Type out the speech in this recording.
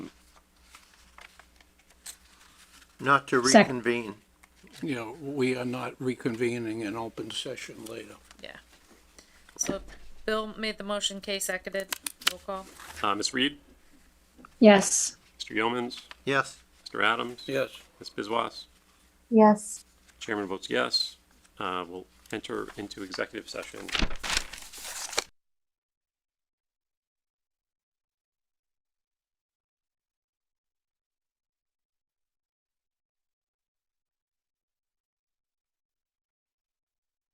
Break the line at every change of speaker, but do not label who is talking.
not to
Sec-
reconvene.
you know, we are not reconvening an open session later.
So Bill made the motion, Kay seconded, roll call.
Uh, Ms. Reed,
Yes.
Mr. Yeomans,
Yes,
Mr. Adams,
Yes,
Ms. Bizwas.
yes,
Chairman votes yes. Uh, we'll enter into executive session